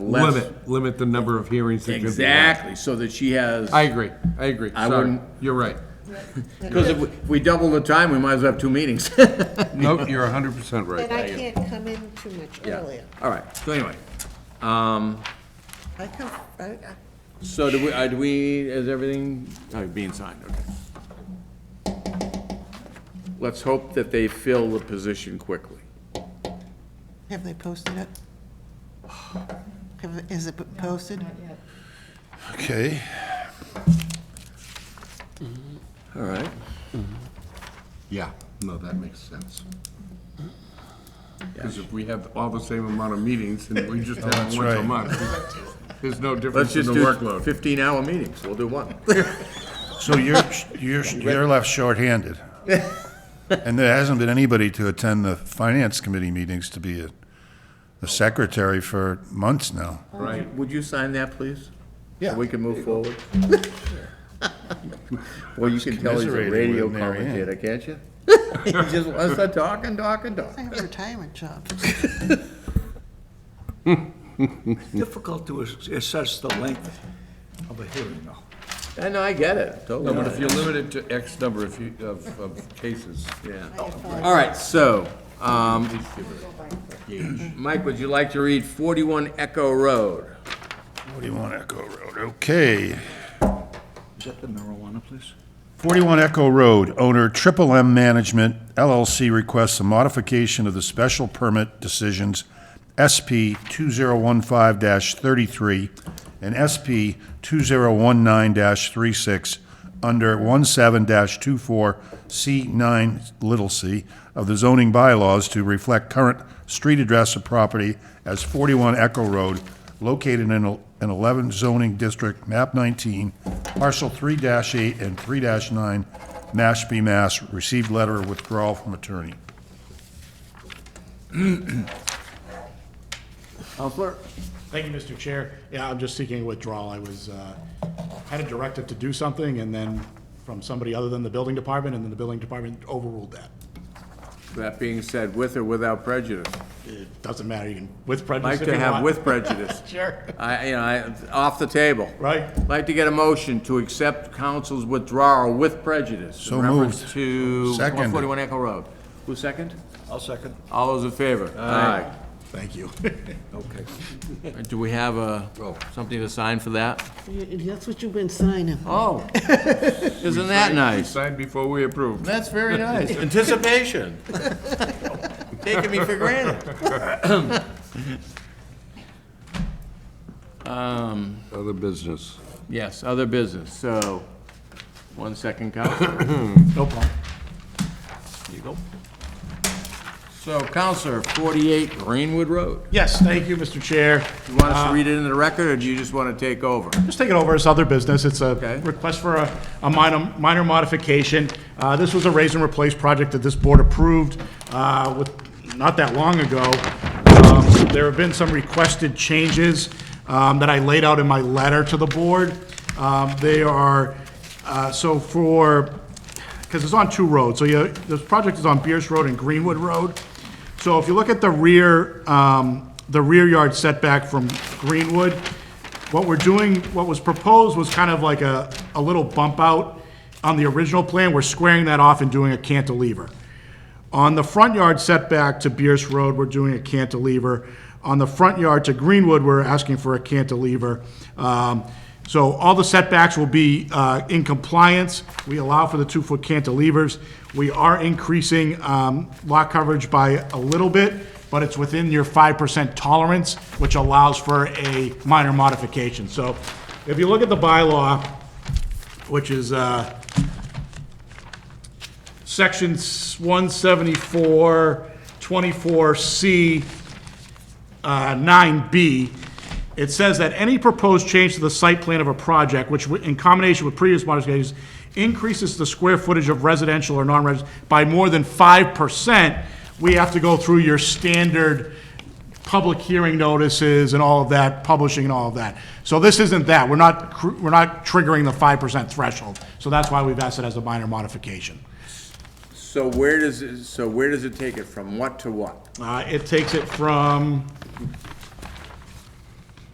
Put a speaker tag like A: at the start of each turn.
A: Let's-
B: Limit, limit the number of hearings that could be. held.
A: Exactly, so that she has,
B: I agree, I agree,
A: I
B: sorry,
A: wouldn't-
B: you're right.
A: because if we- if we double the time, we might as well have two meetings.
B: Nope, you're hundred percent right.
C: And I can't come in too much earlier.
A: All right, so anyway,
C: I come, I, I-
A: so do we, uh, do we, is everything, oh, being signed, okay. Let's hope that they fill the position quickly.
C: have they posted it? Have- Is it posted?
D: Okay.
A: All right.
B: Yeah, no, that makes sense. Because if we have all the same amount of meetings and we just have
D: That's
B: them once a
D: right.
B: month, there's no
A: Let's
B: difference in
A: just
B: the
A: do
B: workload.
A: fifteen-hour meetings, we'll do one.
D: So you're, you're, you're left shorthanded. And there hasn't been anybody to attend the finance committee meetings to be a- the secretary for months now.
B: Right.
A: Would you sign that, please?
D: Yeah.
A: We can move forward. Well, you can tell he's a
D: commiserating
A: radio
D: with Mary Ann.
A: commentator, can't you? He just wants to talk and talk and talk.
C: I have a retirement job.
E: difficult to ass- assess the length of a hearing, though.
A: I know, I get it, totally.
B: But if you're limited to X number of, you- of, of cases.
A: All right, so, um, Mike, would you like to read 41 Echo Road?
D: What do you want, Echo Road? Okay.
E: Is that the marijuana place?
D: 41 Echo Road, owner Triple M Management LLC requests a modification of the special permit decisions SP 2015-33 and SP 2019-36 under 17-24C9 little c of the zoning bylaws to reflect current street address of property as 41 Echo Road, located in el- an 11 zoning district, map 19, parcel 3-8 and 3-9, Mashpee, Mass. Received letter of withdrawal from attorney.
A: Counselor?
F: Thank you, Mr. Chair. Yeah, I'm just seeking a withdrawal. I was, uh, had a directive to do something and then from somebody other than the building department, and then the building department overruled that.
A: That being said, with or without prejudice?
F: It doesn't matter, you can, with prejudice
A: Like
F: if
A: to
F: you
A: have
F: want.
A: with prejudice. Uh,
F: Sure.
A: I, you know, I, off the table.
F: Right.
A: Like to get a motion to accept council's withdrawal with prejudice.
D: So
A: In reference to
D: moved. Second.
A: 141 Echo Road. Who's second?
E: I'll second.
A: All those in favor? Aye.
F: Thank you.
E: Okay.
A: Do we have a, something to sign for that?
C: That's what you've been signing.
A: Oh, isn't that
B: We
A: nice?
B: signed before we approved.
A: That's very nice. Anticipation. Taking me for granted.
B: Other business.
A: Yes, other business, so, one second, Counselor.
F: No problem.
A: There you go. So, Counselor, 48 Greenwood Road.
F: Yes, thank you, Mr. Chair.
A: You want us to read it into the record, or do you just want to take over?
F: Just take it over as other business. It's a
A: Okay.
F: request for a, a minor, minor modification. Uh, this was a raise and replace project that this board approved, uh, with, not that long ago. Um, There have been some requested changes, um, that I laid out in my letter to the board. Um, they are, uh, so for, because it's on two roads, so you, this project is on Beers Road and Greenwood Road. So if you look at the rear, um, the rear yard setback from Greenwood, what we're doing, what was proposed was kind of like a, a little bump out on the original plan, we're squaring that off and doing a cantilever. On the front yard setback to Bierce Road, we're doing a cantilever. On the front yard to Greenwood, we're asking for a cantilever. Um, So all the setbacks will be uh, in compliance. We allow for the two-foot cantilevers. We are increasing um, lot coverage by a little bit, but it's within your 5% tolerance, which allows for a minor modification. So if you look at the bylaw, which is, uh, section 174, 24C, uh, 9B, it says that any proposed change to the site plan of a project, which w- in combination with previous modifications, increases the square footage of residential or non-residential by more than 5%, we have to go through your standard public hearing notices and all of that, publishing and all of that. So this isn't that. We're not, cr- we're not triggering the 5% threshold. So that's why we've asked it as a minor modification.
A: So where does, it- so where does it take it, from what to what?
F: Uh, It takes it from